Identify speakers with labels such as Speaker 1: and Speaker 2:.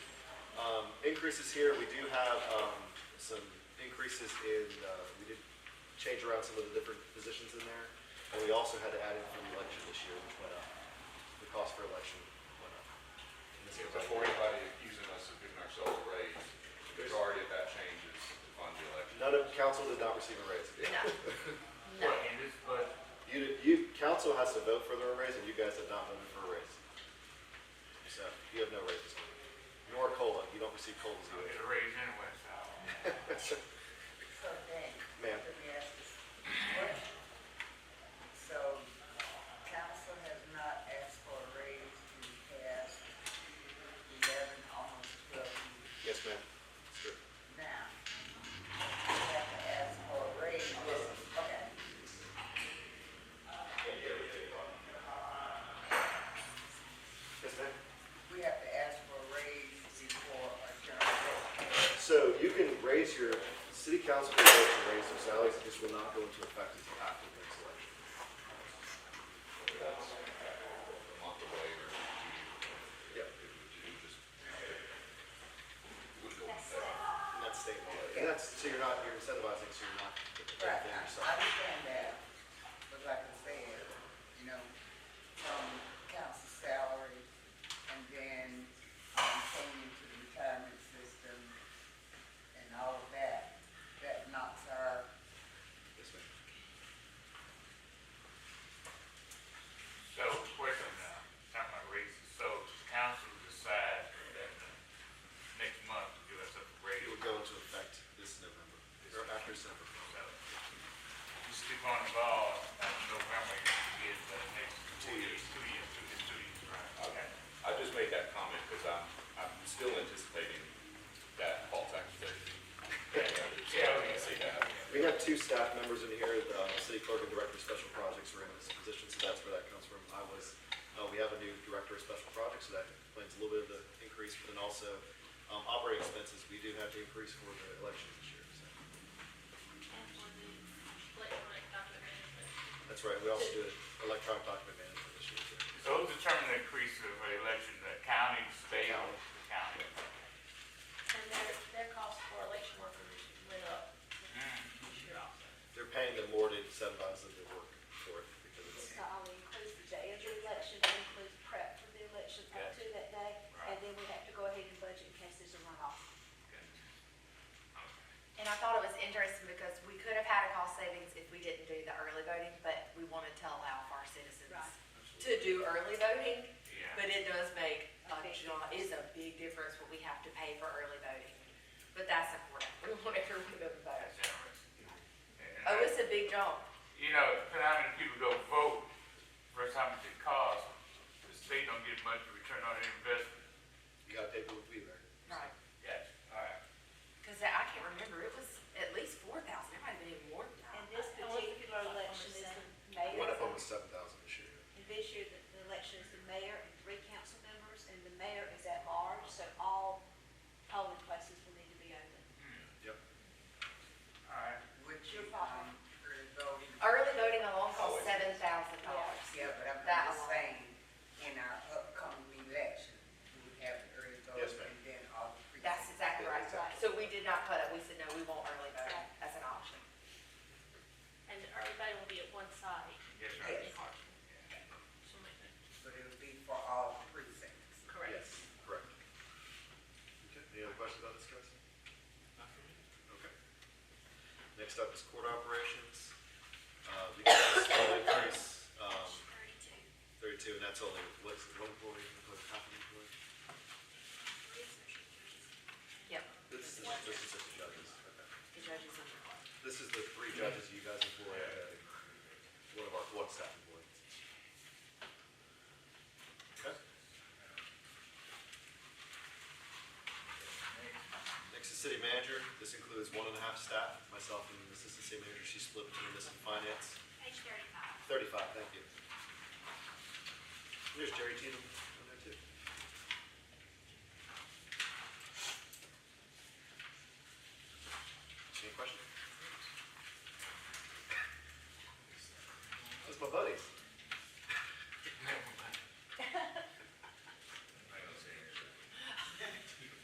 Speaker 1: Um, increases here, we do have um, some increases in, uh, we did change around some of the different positions in there. And we also had to add in for the election this year, which went up. The cost for election went up. And this goes up.
Speaker 2: Before anybody accusing us of giving ourselves a raise, the majority of that change is to fund the election.
Speaker 1: None of, council did not receive a raise.
Speaker 3: No.
Speaker 4: Well,
Speaker 3: No.
Speaker 4: and this, but
Speaker 1: You, did- you, council has to vote for their raise, and you guys have not voted for a raise. So you have no raises. Nor COLA, you don't receive COLAs
Speaker 4: so
Speaker 1: either.
Speaker 4: it's a raise anyway, so.
Speaker 5: So then,
Speaker 1: Ma'am.
Speaker 5: let me ask this question. So council has not asked for a raise in the past eleven, almost twelve years.
Speaker 1: Yes, ma'am. Sure.
Speaker 5: Now, we have to ask for a raise, okay?
Speaker 1: Yes, ma'am.
Speaker 5: We have to ask for a raise before a general election.
Speaker 1: So you can raise your, city council can vote to raise their salaries, this will not go into effect until after the next election.
Speaker 2: A month away or two years.
Speaker 1: Yep.
Speaker 2: It would it would just. it would go on that.
Speaker 1: And that's state law. And that's, so you're not, you're incentivizing, so you're not.
Speaker 5: Right,
Speaker 1: benefiting
Speaker 5: I
Speaker 1: yourself.
Speaker 5: I understand that, but like I said, you know, from council salary and then, um, paying into the retirement system and all of that, that knocks our,
Speaker 1: Yes, ma'am.
Speaker 4: So, question now, time I raise it, so council decides that uh, next month to give us a raise.
Speaker 1: It would
Speaker 4: So,
Speaker 1: go into effect this November, or after December.
Speaker 4: You stick on the ball, uh, November, you can get the next.
Speaker 1: Two years.
Speaker 4: Two years, two years, two years, right, okay.
Speaker 2: I just made that comment because I'm, I'm still anticipating that poll tax rate. Yeah, I see that.
Speaker 1: We have two staff members in here, the uh, city clerk and director of special projects are in this position, so that's where that comes from. I was, uh, we have a new director of special projects, so that explains a little bit of the increase, but then also, um, operating expenses, we do have to increase for the elections this year, so. That's right, we also do electronic document management this year, too.
Speaker 4: So who determines the increase of the election, the county, the state, or the county?
Speaker 3: And their, their cost for election workers went up
Speaker 4: Mm.
Speaker 3: this year also.
Speaker 1: They're paying them more to incentivize them to work for it, because it's,
Speaker 6: It's not only includes the day of the election, it includes prep for the election up to that day, and then we have to go ahead and budget in case there's a runoff.
Speaker 7: And I thought it was interesting because we could have had a cost savings if we didn't do the early voting, but we wanted to allow for our citizens
Speaker 3: Right.
Speaker 7: to do early voting.
Speaker 4: Yeah.
Speaker 7: But it does make
Speaker 3: A
Speaker 7: a
Speaker 3: big
Speaker 7: jo- it's a big difference what we have to pay for early voting. But that's important. We want everyone to vote.
Speaker 4: That's interesting. And
Speaker 7: Oh,
Speaker 4: I-
Speaker 7: it's a big jump.
Speaker 4: You know, depending on how many people go vote versus how much it costs, the state don't get much return on their investment.
Speaker 1: you gotta pay people to be there.
Speaker 7: Right.
Speaker 4: Yes. All right.
Speaker 7: Because I can't remember, it was at least four thousand. It might have been even more than that.
Speaker 6: And this particular election is the
Speaker 1: One
Speaker 6: mayor,
Speaker 1: of them was seven thousand this year.
Speaker 6: and this year, the the election is the mayor and three council members, and the mayor is at large, so all polling places will need to be open.
Speaker 1: Yep.
Speaker 4: All right.
Speaker 5: which you, um, early voting.
Speaker 7: Early voting alone costs seven thousand dollars.
Speaker 5: Yeah, but I'm
Speaker 7: That
Speaker 5: just
Speaker 7: alone.
Speaker 5: saying, in our upcoming election, we have the early
Speaker 1: Yes, ma'am.
Speaker 5: voting and then all the
Speaker 7: That's
Speaker 5: precincts.
Speaker 7: exactly right.
Speaker 1: Exactly.
Speaker 7: So we did not put it, we said, no, we want early voting
Speaker 6: Right.
Speaker 7: as an option.
Speaker 3: And everybody will be at one side.
Speaker 4: Yes, sir.
Speaker 3: in
Speaker 5: Yes.
Speaker 3: Hartsville. Something like that.
Speaker 5: But it would be for all the precincts.
Speaker 3: Correct.
Speaker 1: Yes, correct. Okay, any other questions about this, guys? Okay. Next up is court operations. Uh, we got a small increase, um,
Speaker 6: Thirty-two.
Speaker 1: thirty-two, and that's only, what's, one employee, what's happening for it?
Speaker 7: Yep,
Speaker 1: This is, this is just the judges, okay.
Speaker 7: the judges and the court.
Speaker 1: This is the three judges you guys employ, uh, one of our, one staff employees. Okay. Next is city manager. This includes one and a half staff, myself and the assistant city manager. She's split between this and finance.
Speaker 6: Page thirty-five.
Speaker 1: Thirty-five, thank you. There's Jerry Cheatham.